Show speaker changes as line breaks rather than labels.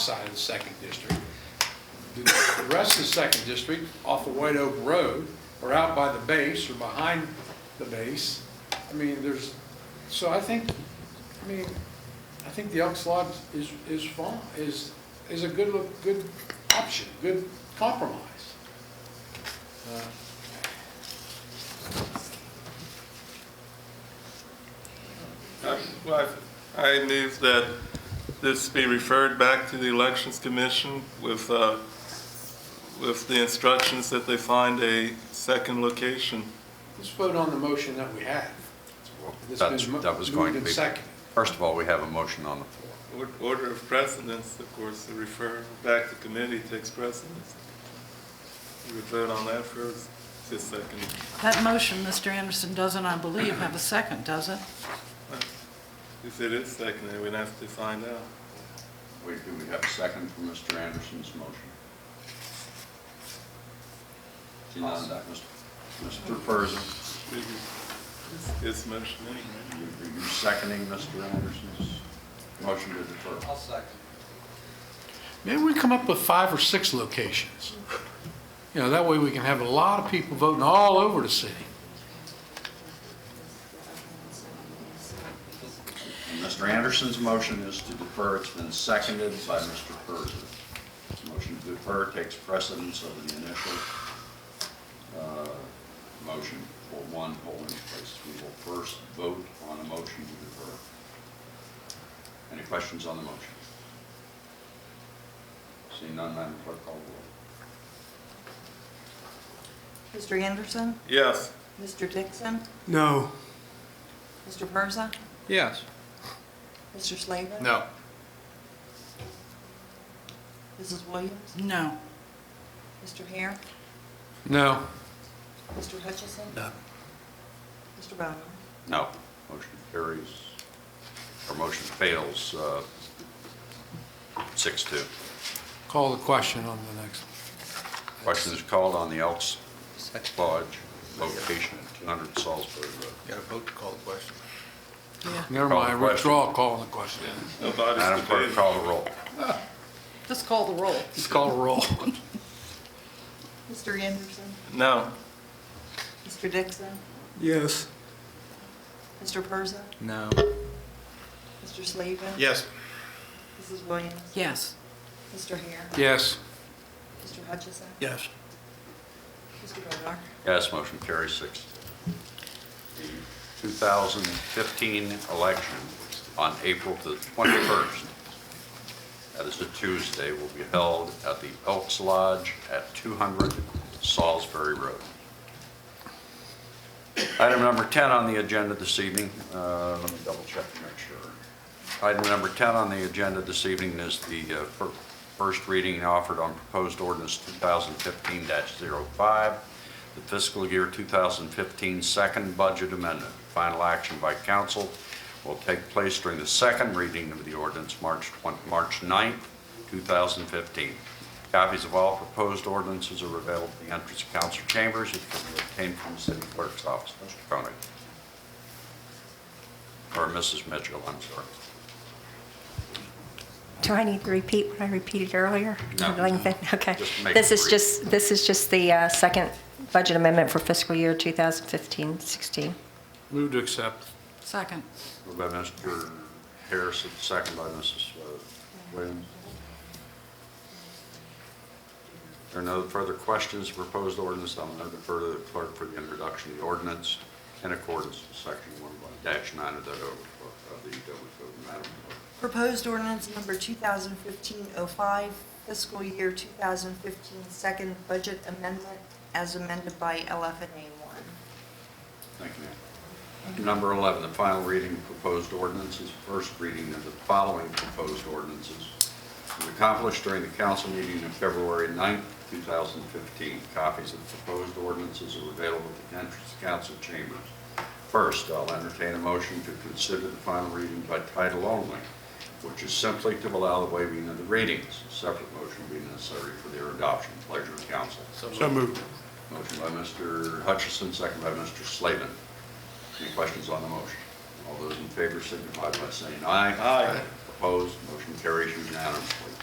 side of the second district. The the rest of the second district off of White Oak Road or out by the base or behind the base. I mean, there's, so I think, I mean, I think the Elks Lodge is, is fine, is, is a good, lo- good option, good compromise. Uh,
I- well, I I move that this be referred back to the Elections Commission with, uh, with the instructions that they find a second location.
Let's vote on the motion that we have. That's
That's,
been mo-
that was
moved
going to
and
be.
seconded.
First of all, we have a motion on the floor.
Or- Order of precedence, of course, to refer back to committee takes precedence. You would vote on that first, just second.
That motion, Mr. Anderson, doesn't, I believe, have a second, does it?
If it is seconded, we'd have to find out.
Wait, do we have a second for Mr. Anderson's motion? See, none, that was- Mr. Persia,
It's- It's motion anyway.
are you seconding Mr. Anderson's motion to defer?
Maybe we come up with five or six locations. You know, that way we can have a lot of people voting all over the city.
And Mr. Anderson's motion is to defer. It's been seconded by Mr. Persia. This Motion to defer takes precedence over the initial uh, motion for one polling place. We will first vote on a motion to defer. Any questions on the motion? Seeing none, Madam Clerk, call the
Mr. Anderson?
Yes,
Mr. Dixon?
No.
Mr. Persa?
Yes.
Mr. Slavin?
No.
Mrs. Williams?
No.
Mr. Hare?
No.
Mr. Hutchison?
No.
Mr. Bowman?
roll. No. Motion carries, or motion fails, uh, six two.
Call the question on the next.
Question is called on the Elks Lodge location at 200 Salisbury Road.
Got a vote to call the question.
Yeah.
Never
Call the
mind,
question.
withdraw calling the question.
nobody's
Madam Clerk,
debating.
call the roll.
Just call the roll.
Let's call a roll.
Mr. Anderson?
No.
Mr. Dixon?
Yes.
Mr. Persa?
No.
Mr. Slavin?
Yes.
Mrs. Williams?
Yes.
Mr. Hare?
Yes.
Mr. Hutchison?
Yes.
Mr. Bonar?
Yes, motion carries six. The 2015 election on April the 21st, that is a Tuesday, will be held at the Elks Lodge at 200 Salisbury Road. Item number 10 on the agenda this evening, uh, let me double check to make sure. Item number 10 on the agenda this evening is the uh, fir- first reading offered on proposed ordinance 2015-05, the fiscal year 2015 second budget amendment. Final action by council will take place during the second reading of the ordinance, March 20 March 9th, 2015. Copies of all proposed ordinances are available at the entrance of council chambers, which can be obtained from the city clerk's office. Mr. Koenig, or Mrs. Mitchell, I'm sorry.
Do I need to repeat what I repeated earlier?
No.
I'm going to- Okay.
Just make
This
it
is
brief.
just, this is just the uh, second budget amendment for fiscal year 2015-16.
Move to accept.
Second.
Moved by Mr. Harrison, second by Mrs. Williams. There are no further questions, to proposed ordinance, I'll now defer to the clerk for the introduction of the ordinance in accordance with section one dash nine of the Dover of the Dover Code, Madam Clerk.
Proposed ordinance number 2015-05, fiscal year 2015 second budget amendment as amended by LFNA 1.
Thank you, ma'am. Item Number 11, the final reading of proposed ordinances, first reading of the following proposed ordinances. Was accomplished during the council meeting of February 9th, 2015. Copies of the proposed ordinances are available at the entrance to council chambers. First, I'll entertain a motion to consider the final reading by title only, which is simply to allow the waiving of the readings. A Separate motion being necessary for their adoption. Pleasure of council.
So moved.
Motion by Mr. Hutchison, second by Mr. Slavin. Any questions on the motion? All those in favor signify by saying aye.
Aye.
Opposed, motion carries unanimously.